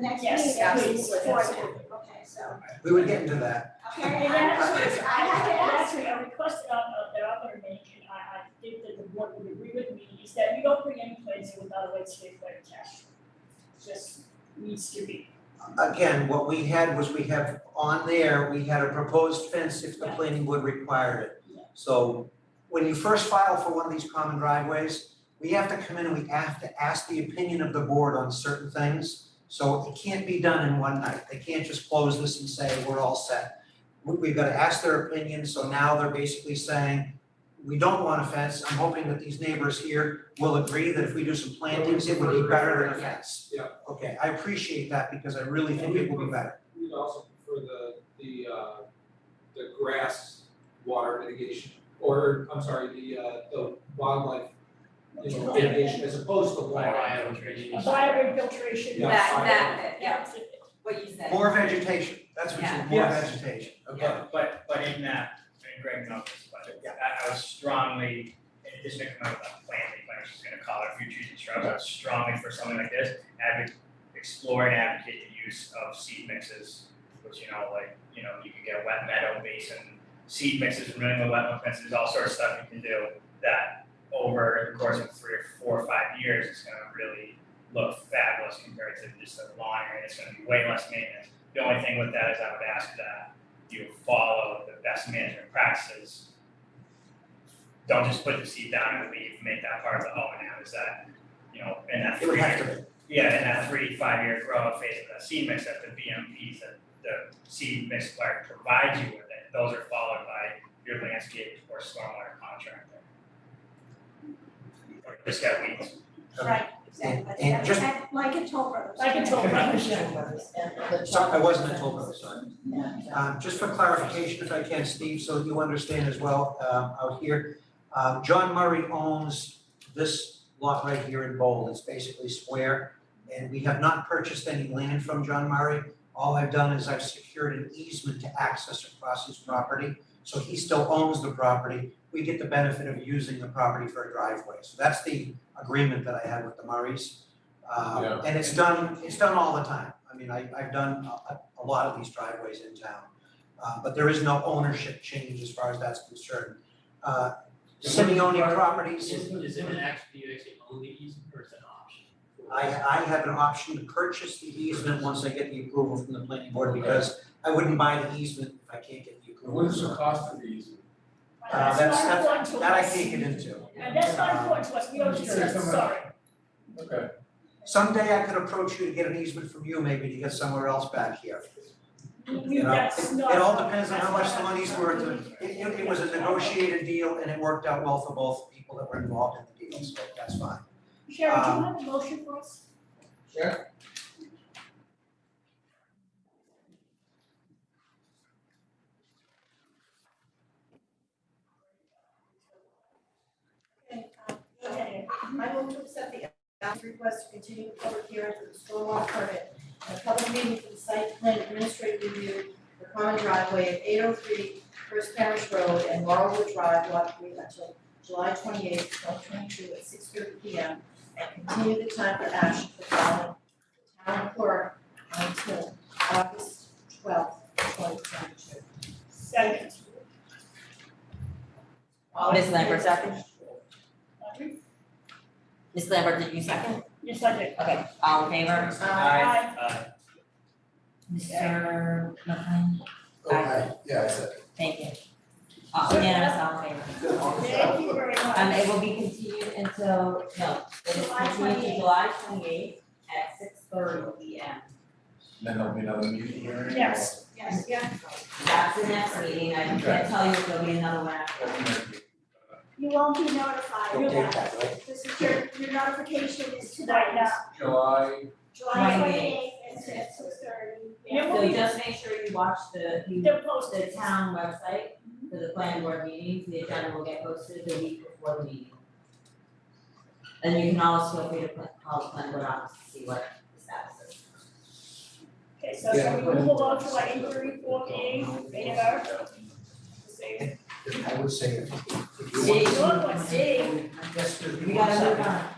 next Yes, meeting, yeah, please, please, for yes. that. okay, so, We were getting to that. okay, And I actually, I have to ask you. actually, a request that I'm, uh, that I'm gonna make, and I, I think that the board would agree with me, is that we don't bring any plates in without a way to take their cash. Just needs to be, Again, what we had was we have on there, we had a proposed fence if the planning board required it. Yeah. So when you first file for one of these common driveways, we have to come in and we have to ask the opinion of the board on certain things. So it can't be done in one night. They can't just close this and say, we're all set. We- We've got to ask their opinion, so now they're basically saying, we don't want a fence. I'm hoping that these neighbors here will agree that if we do some plantings, it would be better than a fence. Yeah, Okay, I appreciate that because I really think it will be better. we'd also prefer the, the, uh, the grass water mitigation, or, I'm sorry, the, uh, the wildlife, you know, Yeah. mitigation as opposed to water. a fire infiltration. Yeah. That, fine. that, bit, yeah, Yeah, what you said. More vegetation, that's what you, more Yeah. Yes. vegetation, okay. But, but, but in that, and Greg knows this, but I, I was strongly, in addition to coming up with planting, I was just gonna call it a few trees and shrubs, I was strongly for something like this, advocate, explore and advocate the use of seed mixes, which, you know, like, you know, you can get wet meadow basin, seed mixes, and running with wetland fences, all sorts of stuff you can do that over the course of three or four or five years, it's gonna really look fabulous compared to just a lawn area, it's gonna be way less maintenance. The only thing with that is I would ask that you follow the best management practices. Don't just put the seed down and leave, make that part of the O and M, is that, you know, in that It would three have to be, yeah, in that three, five year grow phase of that seed mix, that the BMPs that the seed mix supplier provides you with, it, those are followed by your landscape or stormwater contractor. Or just got weeds. Right, Exactly, And- and just- Like- like in Toll Brothers. Like in Toll Brothers. sorry, I wasn't a toll brother, sorry. Um, just for clarification, if I can, Steve, so you understand as well, um, out here. Um, John Murray owns this lot right here in Bowl, it's basically square. And we have not purchased any land from John Murray, all I've done is I've secured an easement to access across his property. So he still owns the property, we get the benefit of using the property for a driveway, so that's the agreement that I had with the Murrays. Um, Yeah. and it's done, it's done all the time, I mean, I, I've done a, a lot of these driveways in town. Uh, but there is no ownership change as far as that's concerned. Uh, Simeone Properties. Is, is it an actually, you actually own the easement or is it an option? I, I have an option to purchase the easement once I get the approval from the planning board, because I wouldn't buy the easement if I can't get the approval. What is the cost of these? Uh, that's that's, not important that's, to us. that I can't get into. And that's not important to us, we don't discuss, sorry. Okay. Someday I could approach you to get an easement from you, maybe to get somewhere else back here. We- we- You know, that's not. It all depends on how much the that's not- money's worth, and it, it- it was a negotiated deal, and it worked out well for both people that were involved in the deal, so that's fine. Sharon, do you Um, have a motion for us? Okay, um, okay. I will to accept the applicant's request to continue the public hearing for the stormwater permit and a public meeting for the site plan administrative review for common driveway at 803 First Parish Road and Laurelwood Drive, lot three, until July twenty eighth, twenty twenty two, at six thirty P M. And continue the time for action for filing the town clerk until August twelfth, twenty twenty two. Second. Ms. Lambert, second? Audrey? Ms. Lambert, did you second? Yes, I did. Okay, all in favor? Uh, Aye. Mr. McLean, Okay, yeah, I said. thank you. Uh, unanimous, all in favor. Thank you very much. Um, it will be continued until, no, it is July continued to 28th. July twenty eighth at six thirty P M. Then there'll be another meeting here. Yes. Yes, yeah. That's the next meeting, I can't tell you if there'll be another one after. You won't be notified, You'll you'll take that, right? This is your, your notification is Right tonight, now. July, July Right. twenty eighth, at six thirty. Yeah. So just make sure you watch the, you They're the posted. town website for the planning board meetings, the agenda will get posted the week before the meeting. And you can always feel free to pla- call the planning board office to see what the status is. Okay, so shall we move on to our inquiry for A, radar? I would say if if you See, want. Good one, Steve. Yes, if you We want gotta move something. on.